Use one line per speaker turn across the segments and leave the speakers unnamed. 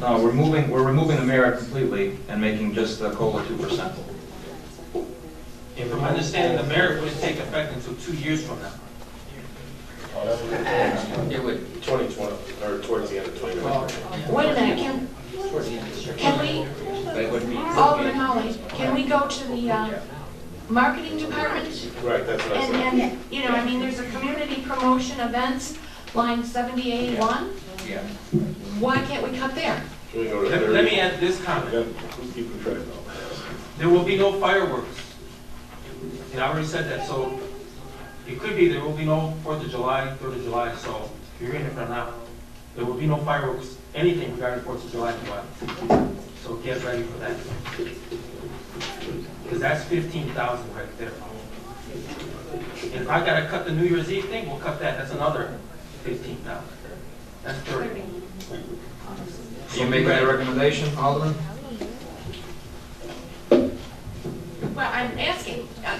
No, we're moving, we're removing the merit completely and making just the COLA two percent.
If I'm understanding, the merit wouldn't take effect until two years from now. It would.
2020, or towards the end of 2020.
Wait a minute, can, can we, Alderman Holly, can we go to the uh, marketing department?
Right, that's what I
And,
said.
and, you know, I mean, there's a community promotion events, line 781.
Yeah.
Why can't we cut there?
Can we go to
Let let me
30?
add this
Yeah,
comment.
Who's keeping track of all
There will be no fireworks. And I already said that, so it could be there will be no Fourth of July, Third of July, so if you're in it for now, there will be no fireworks, anything regarding Fourth of July, July. So get ready for that. Because that's fifteen thousand right there. And if I gotta cut the New Year's Eve thing, we'll cut that, that's another fifteen thousand. That's thirty.
Are you making that recommendation, Alderman?
Well, I'm asking. uh,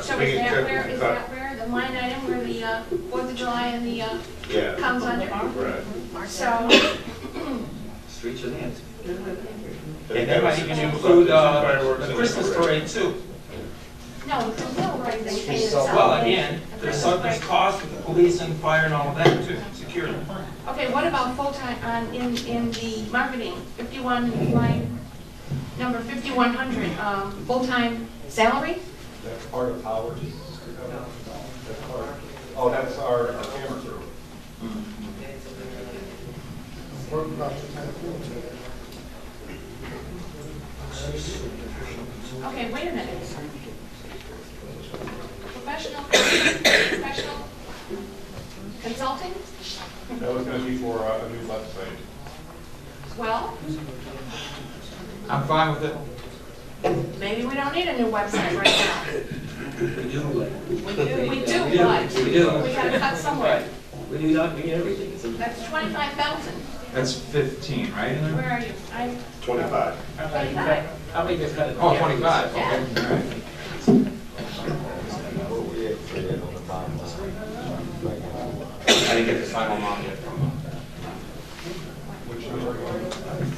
So
We
is
can
that
cut-
where, is
cut.
that where, the line item where the uh, Fourth of July and the, uh,
that? Yeah,
comes under?
right.
So,
Streets and hands.
And that might even include, uh, the Christmas parade too.
no, there's no right, they pay us out.
Well, again, there's something's cost with the police and fire and all of that too, security.
Okay, what about full-time, on, in, in the marketing, fifty-one, line, number fifty-one hundred, um, full-time salary?
That's part of Howard. That's part, oh, that's our our camera crew.
Okay, wait a minute. Professional, professional consulting?
That was gonna be for uh, a new website.
Well,
I'm fine with it.
maybe we don't need a new website right
We do,
now. We do,
We do.
but
We do.
we gotta cut somewhere.
we do not mean everything. It's a-
That's twenty-five thousand.
That's fifteen, right? in there?
Where are you? I'm
25.
twenty-five.
I think it's kind of.
Oh, twenty-five, okay.
Yeah.
all right. I didn't get the final amount yet from, uh,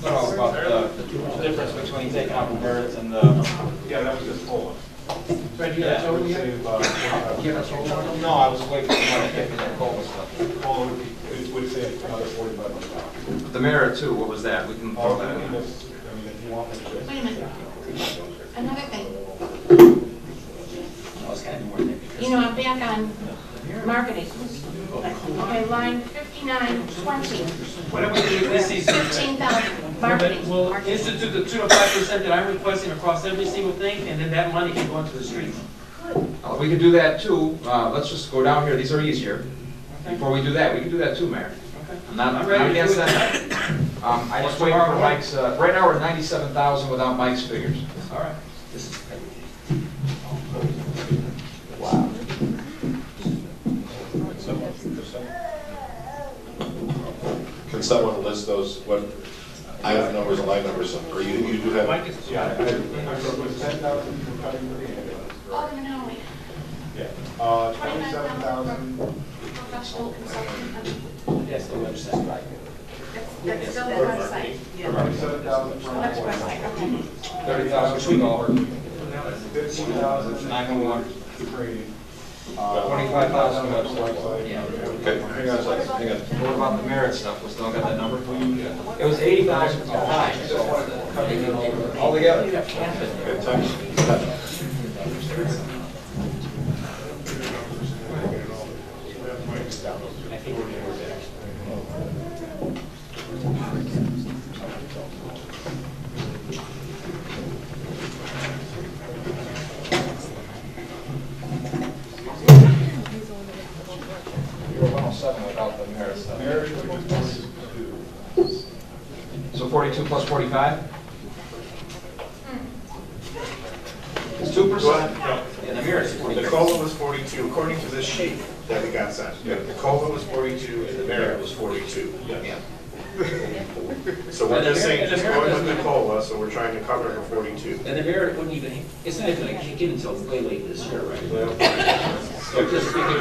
no, about the the difference between taking out the merits and the.
Yeah, that was just full.
Fred, you got
That
Joe
would
yet?
save, uh, 45
No, I was waiting for the money to that COLA stuff.
Well, it would be- it would save another forty-five hundred dollars. Oh,
The merit too, what was that? We can throw
All
that
I mean,
in.
if, I mean, if you want me to.
Wait a minute. Another thing. You know, I'm back on marketing. Okay, line fifty-nine twenty,
Whatever we do this season,
fifteen thousand, marketing.
we'll institute the two to five percent that I'm requesting across every single thing, and then that money can go into the streets.
Uh, We could do that too. Uh, Let's just go down here. These are easier. Before we do that, we can do that too, Mayor.
Okay.
I'm not,
I'm
I'm
ready to
against
do it.
that. Um, I just
Or
wait
tomorrow
for
morning.
Mike's, uh, right now we're at ninety-seven thousand without Mike's figures.
All right.
Can someone list those, what, item numbers and line numbers, or you, you do have?
Mike is.
Yeah, I, I, it was ten thousand for cutting the ambulance.
Alderman Holloway,
Yeah, uh, twenty-seven
Oh, twenty-nine thousand
thousand,
for professional consulting.
Yes, the website, right.
That's, that's still the website.
twenty-seven thousand for
That's
employees.
website, okay.
Thirty thousand for Dollar,
Fifteen thousand.
nine one one.
Training. Uh,
Twenty-five thousand
Website.
Yeah.
Okay, hang on a second, hang on.
What about the merit stuff? We still got that number?
It was eighty thousand for nine, so.
All together?
Okay, time.
You were one oh seven without the merit stuff.
Marriage, which is forty-two.
So forty-two plus forty-five? It's two percent. And the merit is
The
forty-two.
COLA was 42, according to this sheet that we got sent. The COLA was 42 and the merit was 42.
Yeah.
So we're
And the
just saying,
merit- and the
just going
merit
with the
doesn't-
COLA, so we're trying to cover the 42.
And the merit wouldn't even, it's not even gonna kick in until way late this year, right?
Well,
They're just, they